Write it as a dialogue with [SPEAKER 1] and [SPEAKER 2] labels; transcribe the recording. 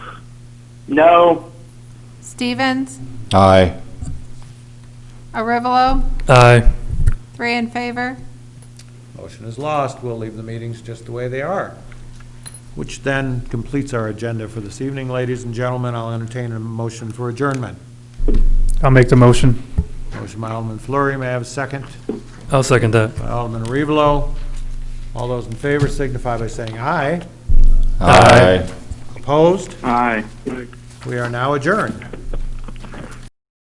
[SPEAKER 1] No.
[SPEAKER 2] Stevens,
[SPEAKER 3] Aye.
[SPEAKER 2] Arivalo,
[SPEAKER 4] Aye.
[SPEAKER 2] three in favor.
[SPEAKER 5] Motion is lost. We'll leave the meetings just the way they are. Which then completes our agenda for this evening. Ladies and gentlemen, I'll entertain a motion for adjournment.
[SPEAKER 4] I'll make the motion.
[SPEAKER 5] Motion by Alderman Flurry, may I have a second?
[SPEAKER 4] I'll second that.
[SPEAKER 5] By Alderman Arivalo. All those in favor signify by saying aye.
[SPEAKER 4] Aye.
[SPEAKER 5] Opposed?
[SPEAKER 1] Aye.
[SPEAKER 5] We are now adjourned.